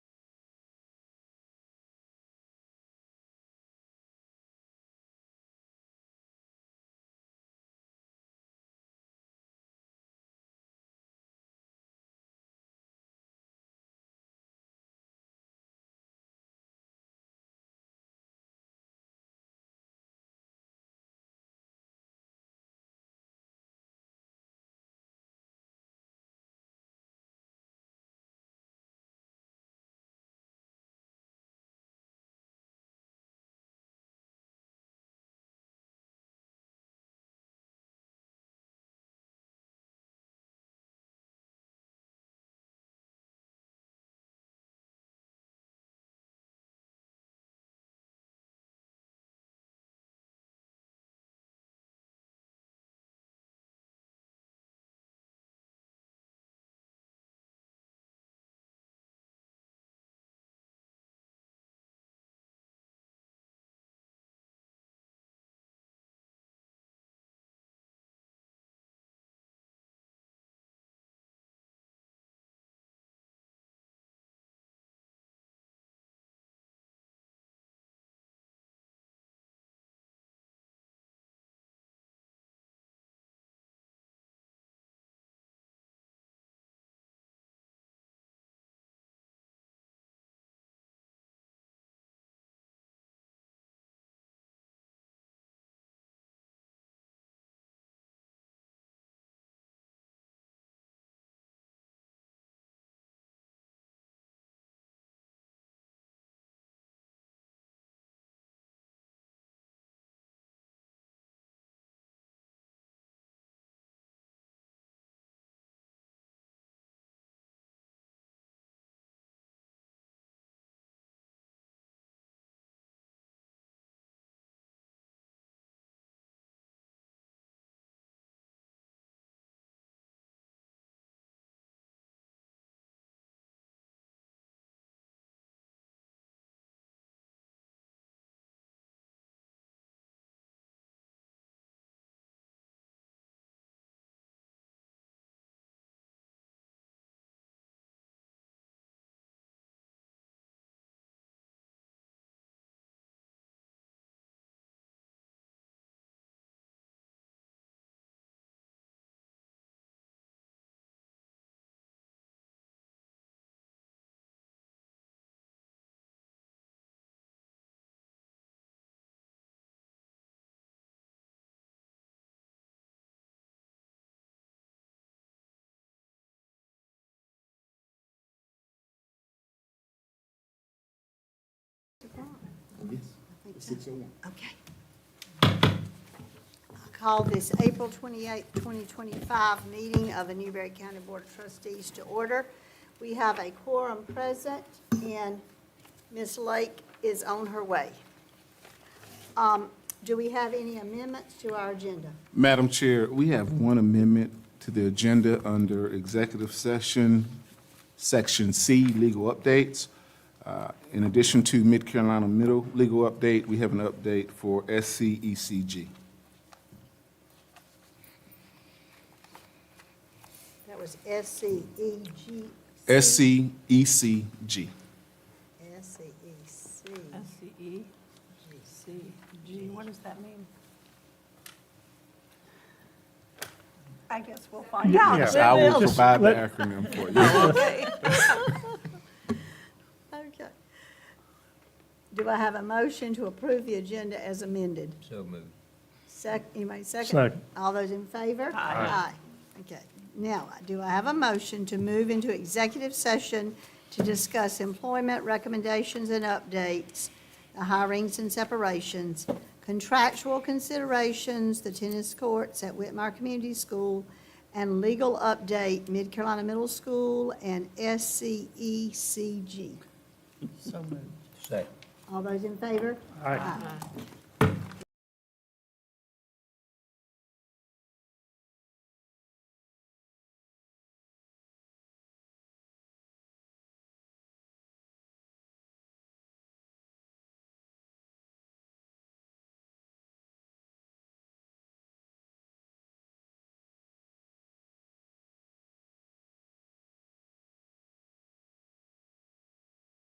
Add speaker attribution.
Speaker 1: six oh one.
Speaker 2: Okay. I call this April 28, 2025 meeting of the Newberry County Board of Trustees to order. We have a quorum present, and Ms. Lake is on her way. Um, Do we have any amendments to our agenda?
Speaker 1: Madam Chair, we have one amendment to the agenda under executive session, Section C, legal updates. Uh, In addition to Mid-Carolina Middle legal update, we have an update for E SCECG.
Speaker 2: That was E S-C-E-G.
Speaker 1: E SCECG.
Speaker 2: S-C-E-C. E
Speaker 3: S-C-E, C-G, what does that mean? I guess we'll find out.
Speaker 1: I will provide the acronym for you.
Speaker 2: Okay. Do I have a motion to approve the agenda as amended?
Speaker 4: So moved.
Speaker 2: Sec, anybody second?
Speaker 5: Second.
Speaker 2: All those in favor? Aye. Okay. Now, do I have a motion to move into executive session to discuss employment recommendations and updates, the hirings and separations, contractual considerations, the tennis courts at Whitmire Community School, and legal update, Mid Carolina Middle School and E SCECG?
Speaker 4: Second.
Speaker 2: All those in favor?
Speaker 5: Aye.
Speaker 2: Aye.